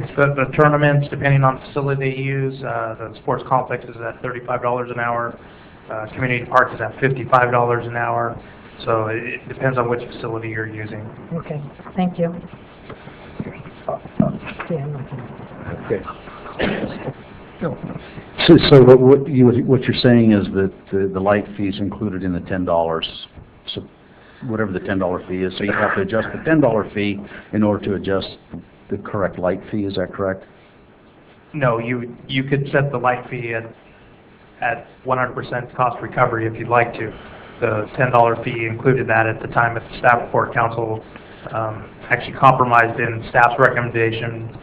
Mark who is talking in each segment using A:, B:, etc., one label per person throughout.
A: the, the tournaments, depending on facility they use, uh, the sports complex is at thirty-five dollars an hour, uh, community parks is at fifty-five dollars an hour, so it, it depends on which facility you're using.
B: Okay, thank you. Yeah, I'm not gonna-
C: Okay. So, so what, what you, what you're saying is that the, the light fee's included in the ten dollars, so whatever the ten dollar fee is, so you have to adjust the ten dollar fee in order to adjust the correct light fee, is that correct?
A: No, you, you could set the light fee at, at one hundred percent cost recovery if you'd like to. The ten dollar fee included that at the time that the staff report council, um, actually compromised in staff's recommendation.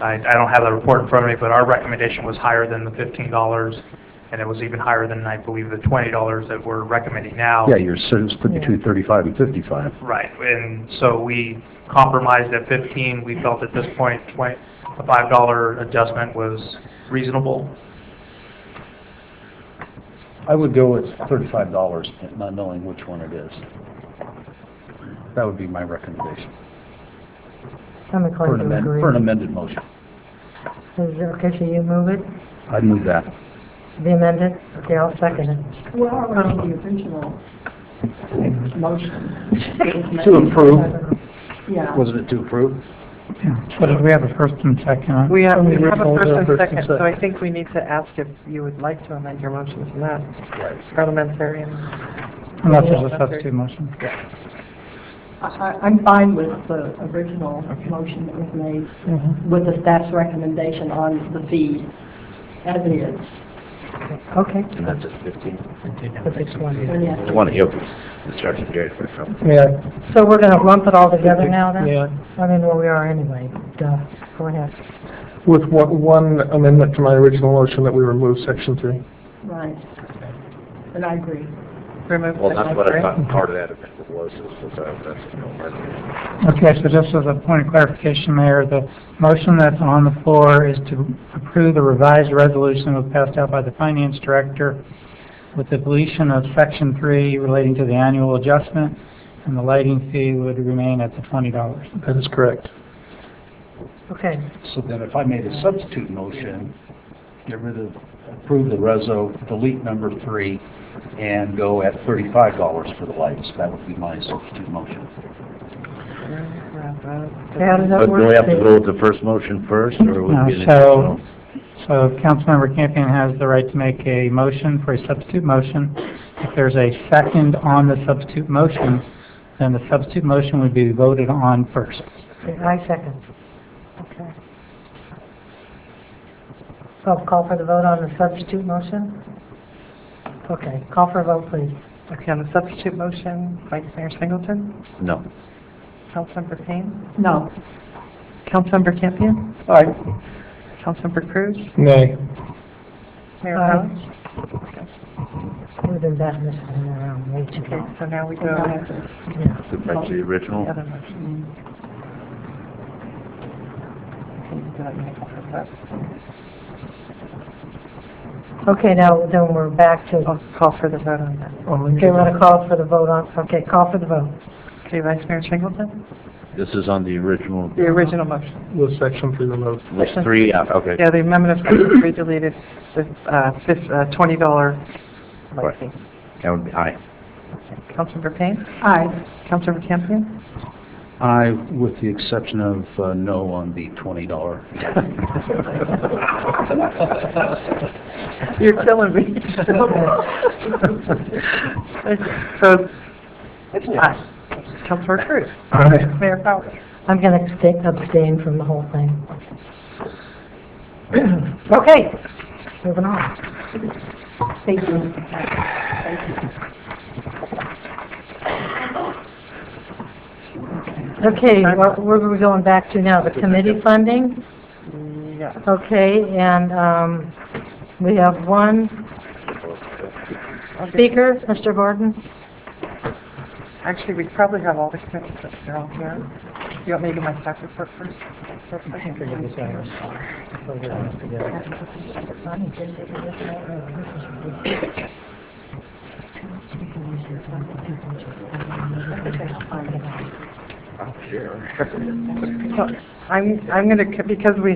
A: I, I don't have the report in front of me, but our recommendation was higher than the fifteen dollars, and it was even higher than, I believe, the twenty dollars that we're recommending now.
C: Yeah, you're, so it's put between thirty-five and fifty-five.
A: Right, and so we compromised at 15. We felt at this point, 20, a $5 adjustment was reasonable.
C: I would go with thirty-five dollars, not knowing which one it is. That would be my recommendation,
B: I'm
C: for an
B: inclined to
C: amended,
B: agree.
C: for an amended motion.
B: Is it okay for you to move it,
C: I'd move that.
B: be amended? Okay, I'll second it.
D: Where are we on the original motion?
C: To approve,
D: Yeah.
C: wasn't it to approve?
E: But we have a first and second. huh?
F: We have, we
E: From the
F: have a
E: original,
F: first
E: there,
F: and second, so I think we need to ask if you would like to amend your motion to that,
C: Right.
F: parliamentarian.
E: Unless there's a substitute motion.
D: I, I- I'm fine with the original motion that was made with the staff's recommendation on the fee as it is.
B: Okay,
G: And that's at fifteen?
B: that's it, one.
D: And yes,
G: Twenty, okay. The starting period for some.
E: Yeah.
B: So we're gonna lump it all together now then?
E: Yeah.
B: I mean, where we are anyway, duh, go ahead.
H: With one- one amendment to my original motion that we remove section three.
D: right. And I agree.
F: Remove
G: Well, that's what I
F: secretary.
G: thought part of that amendment was, is that that's a no amendment.
E: Okay, so just as a point of clarification, Mayor, the motion that's on the floor is to approve the revised resolution that was passed out by the Finance Director with the deletion of Section 3 relating to the annual adjustment, and the lighting fee would remain at the $20.
H: That is correct.
B: Okay,
C: So then if I made a substitute motion, get rid of, approve the reso, delete number three, and go at thirty-five dollars for the lights, that would be my substitute motion.
B: how does that
G: But
B: work?
G: do we have to
B: Steve?
G: go with the first motion first, or would
E: No,
G: it be an
E: so-
G: additional?
E: So Councilmember Campion has the right to make a motion for a substitute motion. If there's a second on the substitute motion, then the substitute motion would be voted on first.
B: Okay, I second. Okay. So call for the vote on the substitute motion? Okay, call for a vote, please.
F: Okay, on the substitute motion, Vice Mayor Singleton,
G: No.
F: Councilmember Payne,
D: No.
F: Councilmember Campion,
H: Aye.
F: Councilmember Cruz,
H: Nay.
F: Mayor
B: Aye.
F: Collins.
B: We've been batting this one around way too
F: Okay,
B: long.
F: so now we go
D: No.
F: to
B: Yeah.
G: Go back to the
F: the
G: original?
F: other motion. Can you do that, Mayor Collins?
B: Okay, now then we're back to, okay,
F: I'll call for the vote on that.
B: we're gonna call for the vote on, okay, call for the vote.
F: Okay, Vice Mayor Singleton,
G: This is on the original,
F: the original motion.
H: With section three removed.
G: was three, out, okay.
F: Yeah, the amendment of Section 3 deleted the uh, fif- uh, $20 late
G: Right.
F: fee.
G: That would be aye.
F: Councilmember Payne,
D: Aye.
F: Councilmember Campion,
C: I, with the exception of, uh, no on the twenty dollar.
F: you're killing me. So, it's aye. Councilmember Cruz,
H: Aye.
F: Mayor Powers.
B: I'm gonna abstain- abstain from the whole thing. Okay, moving on.
D: Thank you. Thank you.
B: Okay, wh- where are we going back to now? The committee funding?
F: Yeah.
B: Okay, and, um, we have one speaker, Mr. Gordon.
F: Actually, we probably have all the committees that are all here. You want me to do my staff report first? So, I'm, I'm going to, because we